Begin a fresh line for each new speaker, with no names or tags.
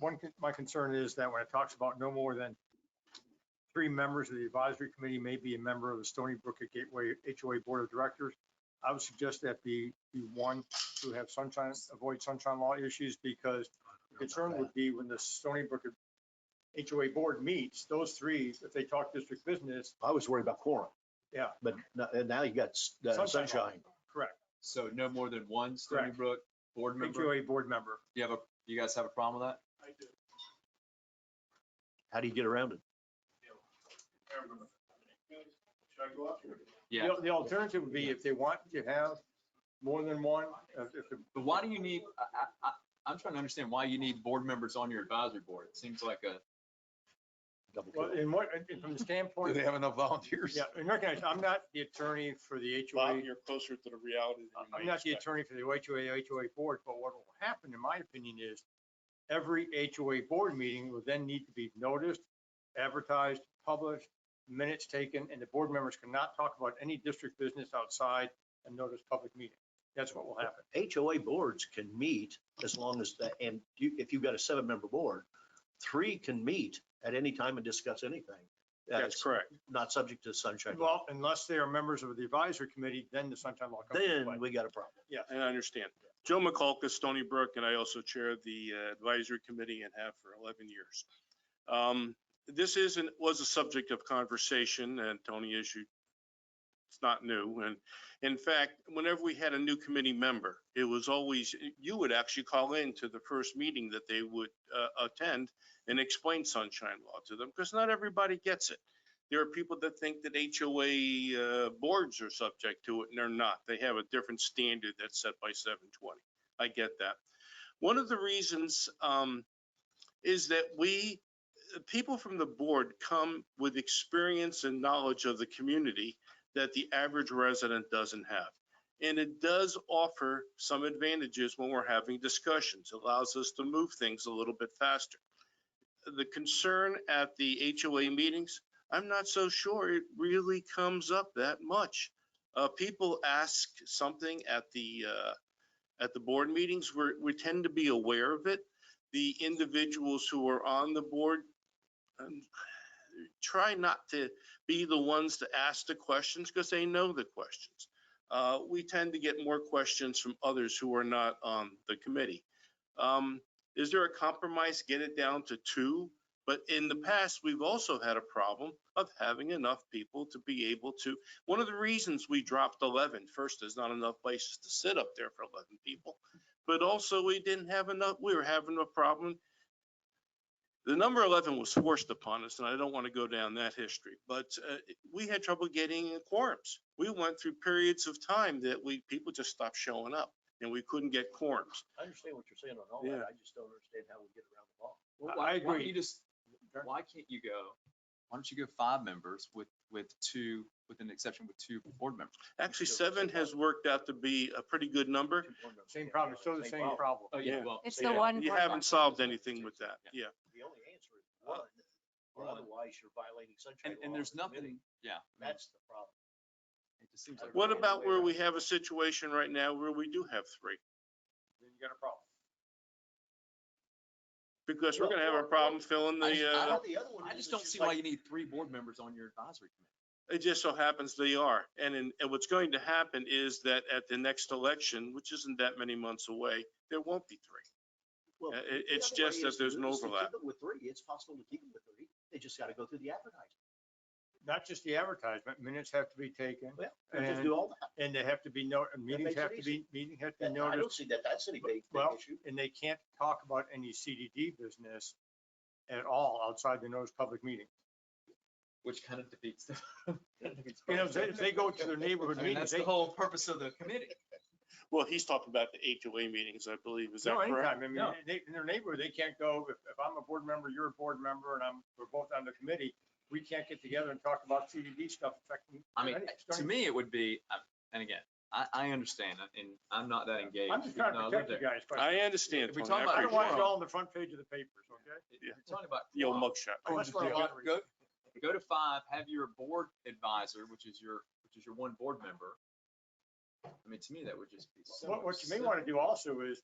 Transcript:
One, con- my concern is that when it talks about no more than three members of the advisory committee may be a member of the Stony Brook at Gateway HOA Board of Directors, I would suggest that be, be one to have sunshine, avoid sunshine law issues because the concern would be when the Stony Brook HOA Board meets, those three, if they talk district business,
I was worried about quorum.
Yeah.
But no- and now you got s- uh,
Sunshine law.
sunshine.
correct,
So no more than one Stony
Correct.
Brook board member? Do
HOA Board member.
you have a, do you guys have a problem with that?
I do.
How do you get around it?
Should I go up here?
Yeah,
The- The alternative would be if they want to have more than one, if, if the
but why do you need, I, I, I, I'm trying to understand why you need board members on your advisory board. It seems like a,
Double kill.
Well, in what, in- from the
Do
standpoint,
they have enough volunteers?
yeah, and recognize, I'm not the attorney for the HOA.
Bob, Uh, you're closer to the reality than you
I'm
may
not the
expect.
attorney for the HOA, HOA board, but what will happen, in my opinion, is every HOA board meeting will then need to be noticed, advertised, published, minutes taken, and the board members cannot talk about any district business outside a notice public meeting. That's what will happen.
HOA boards can meet as long as, the- and you- if you've got a seven-member board, three can meet at any time and discuss anything. That's
correct.
not subject to sunshine. law.
Well, unless they are members of the advisory committee, then the sunshine law comes into play.
Then we got a problem.
And I understand. Joe McCulca, Stony Brook, and I also chair the uh, advisory committee and have for 11 years. Um, This isn't, was a subject of conversation and Tony issued, it's not new. And in fact, whenever we had a new committee member, it was always, you would actually call in to the first meeting that they would uh, attend and explain sunshine law to them, because not everybody gets it. There are people that think that HOA uh, boards are subject to it, and they're not. They have a different standard that's set by 720. I get that. One of the reasons um, is that we, uh, people from the board come with experience and knowledge of the community that the average resident doesn't have. And it does offer some advantages when we're having discussions, allows us to move things a little bit faster. The concern at the HOA meetings I'm not so sure it really comes up that much. Uh, people ask something at the, uh, at the board meetings, we're, we tend to be aware of it. The individuals who are on the board, um, try not to be the ones to ask the questions because they know the questions. Uh, we tend to get more questions from others who are not on the committee. Um, is there a compromise? Get it down to two? But in the past, we've also had a problem of having enough people to be able to, one of the reasons we dropped 11, first, there's not enough places to sit up there for 11 people. But also, we didn't have enough, we were having a problem. The number 11 was forced upon us, and I don't want to go down that history, but uh, we had trouble getting quorums. We went through periods of time that we, people just stopped showing up, and we couldn't get quorums.
I understand what you're saying on all
Yeah.
that. I just don't understand how we get around the law.
why-
I
why don't
agree.
You just, why can't you go, why don't you go five members with, with two, with an exception with two board members?
Actually, seven has worked out to be a pretty good number.
Two board members
Same
can't
problem,
have
still the
same
same
problem.
problem.
Oh, yeah,
Yeah.
well,
It's
Yeah.
the one.
You
board
haven't
member.
solved anything with that, yeah.
The only answer is one, or otherwise you're violating sunshine
and,
law.
and
of
there's
the committee.
nothing, yeah.
That's the problem.
It just seems like.
What about where we have a situation right now where we do have three?
Then you got a problem.
Because we're gonna have a problem filling
I just-
the,
I
uh,
don't-
The other one
I
is it's
just don't see
like-
why you need three board members on your advisory committee.
it just so happens they are. And in, and what's going to happen is that at the next election, which isn't that many months away, there won't be three.
Well,
Uh, it-
the
it's
other
just
way
that
is to
there's
do
no
is to keep
overlap.
it With three, it's possible to keep it with three. They just got to go through the advertising.
Not just the advertisement, minutes have to be taken,
Well, they just
and,
do all that.
and they have to be, no- meetings
makes it
have to be,
easy.
meeting have to be
And I
noticed.
don't see that that's any big, big
Well,
issue.
and they can't talk about any CDD business at all outside the notice public meeting.
Which kind of defeats the.
You know, if they, if they go to their neighborhood
I mean,
meetings,
that's
they,
the whole purpose of the committee.
Well, he's talking about the HOA meetings, I believe. Is that
no,
correct?
anytime, I mean,
No.
they, in their neighborhood, they can't go, if, if I'm a board member, you're a board member, and I'm, we're both on the committee, we can't get together and talk about CDD stuff affecting.
I mean,
any-
to me, it would be, uh, and again, I, I understand, and I'm not that engaged.
I'm just trying
even
to
though I live
protect you
there.
guys, but
I understand.
If we
Tony,
talk
I
about
I don't want it
appreciate it.
all on the front page of the papers, okay?
If
Yeah.
You're talking about.
The old
quorum,
mugshot.
Oh, that's what I
go-
wanted to read.
Go go to five, have your board advisor, which is your, which is your one board member. I mean, to me, that would just be so.
What, what you may
simple.
want to do also is